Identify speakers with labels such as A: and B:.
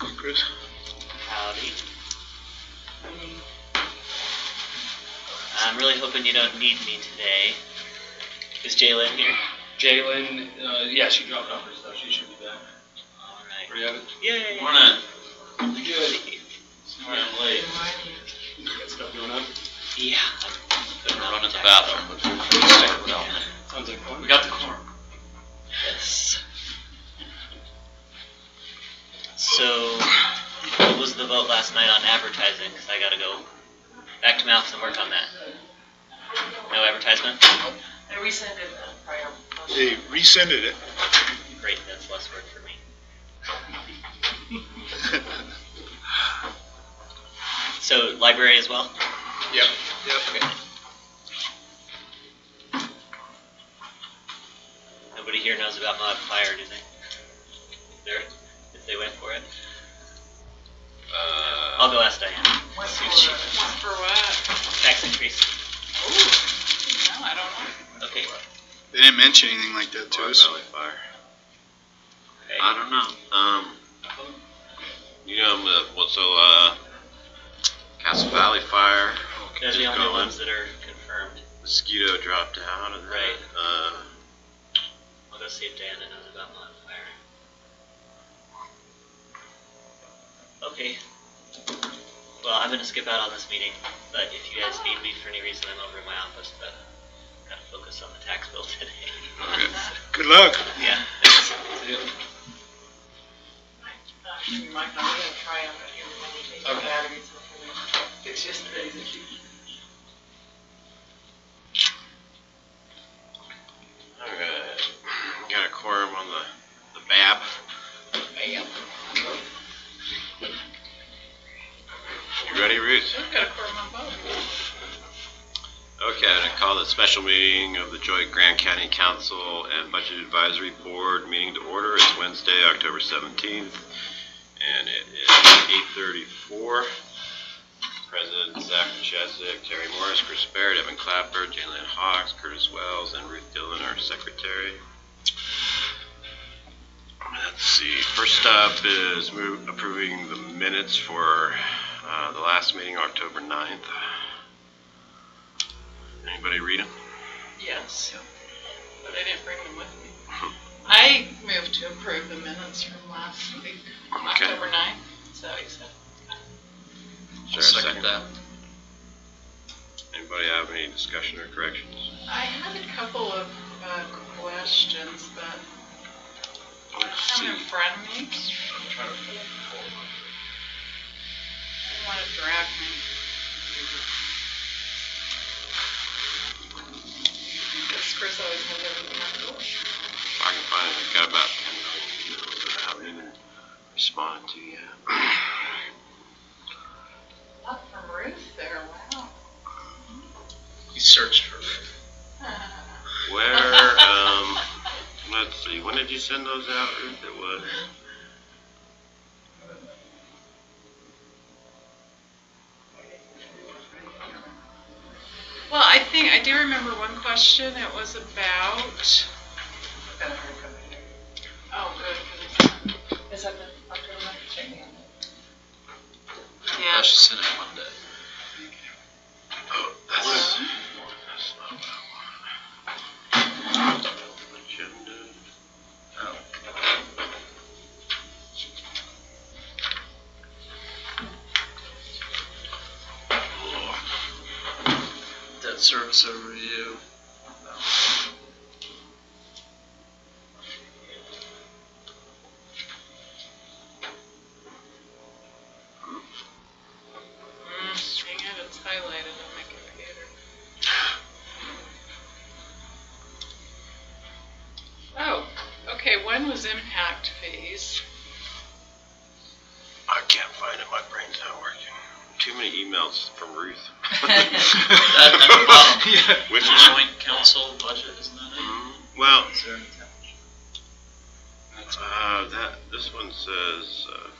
A: Hey, Chris.
B: Howdy. I'm really hoping you don't need me today. Is Jalen here?
A: Jalen, uh, yeah, she dropped off her stuff. She should be back.
B: Alright.
A: Pretty of it.
B: Yay!
C: Morning.
A: Good.
C: Sorry I'm late.
A: You got stuff going on?
B: Yeah.
C: Been running to the bathroom, but we're pretty safe without me.
A: Sounds like fun.
C: We got the corn.
B: Yes. So, what was the vote last night on advertising? Because I gotta go back to mouth and work on that. No advertisement?
D: I rescinded that prior motion.
E: They rescinded it.
B: Great, that's less work for me. So, library as well?
A: Yep. Yep.
B: Nobody here knows about modifier, do they? There, if they went for it. I'll
C: Uh,
B: go ask Diane.
D: What's
B: Thank
D: for,
B: you.
D: what's for what?
B: Tax increase.
D: No, Oh, I don't know.
B: Okay.
E: They didn't mention anything like that to
C: Water
E: us.
C: Valley Fire.
B: okay.
C: I don't know. Um, you know, uh, well, so, uh, Castle Valley Fire,
B: Those are the
C: Keep
B: only
C: going.
B: ones that are confirmed.
C: mosquito dropped out of that.
B: Right.
C: Uh,
B: I'll go see if Diana knows about modifier. Okay. Well, I'm gonna skip out on this meeting, but if you guys need me for any reason, I'm over in my office, but gotta focus on the tax bill today.
C: okay.
E: Good luck.
B: Yeah.
D: Not sure you might not be gonna try on the human
A: Okay.
D: batteries before we- It's just crazy.
C: Alright. Got a quorum on the, the BAB. You ready, Ruth?
D: We've got a quorum on both.
C: Okay, I'm gonna call the special meeting of the joint Grand County Council and Budget Advisory Board meeting to order. It's Wednesday, October 17th, and it is 8:34. President Zach Chesak, Terry Morris, Chris Barrett, Evan Clapper, Jalen Hawks, Curtis Wells, and Ruth Dillon, our secretary. Let's see, first up is move- approving the minutes for uh, the last meeting, October 9th. Anybody read them?
D: Yes, but I didn't bring them with me. I moved to approve the minutes from last week,
C: Okay.
D: October ninth, so you said.
C: Is there a second? Anybody have any discussion or corrections?
D: I had a couple of, uh, questions, but
C: Let's
D: I have them in front of me. I want to drag me. Because Chris always has everything on the door.
C: If I can find it, I've got about ten million emails that I haven't even responded to yet.
D: Up from Ruth there, wow.
A: He searched for
C: Where, um, let's see, when did you send those out, Ruth? It was,
D: Well, I think, I do remember one question, it was about. Oh, good. 'cause it's- Is that the October ninth check-in? Yeah.
A: she sent it Monday.
C: oh,
D: Uh,
C: that's, that's not what I wanted. Agenda.
A: Debt service overview.
D: Mm, Hang on, it's highlighted on my computer. Oh, okay, one was impact fees.
C: I can't find it, my brain's not working. Too many emails from Ruth.
A: Yeah.
C: Which one?
F: Joint council budget, isn't that
C: Mm, Well,
F: it? Is there-
C: Uh, that, this one says, uh,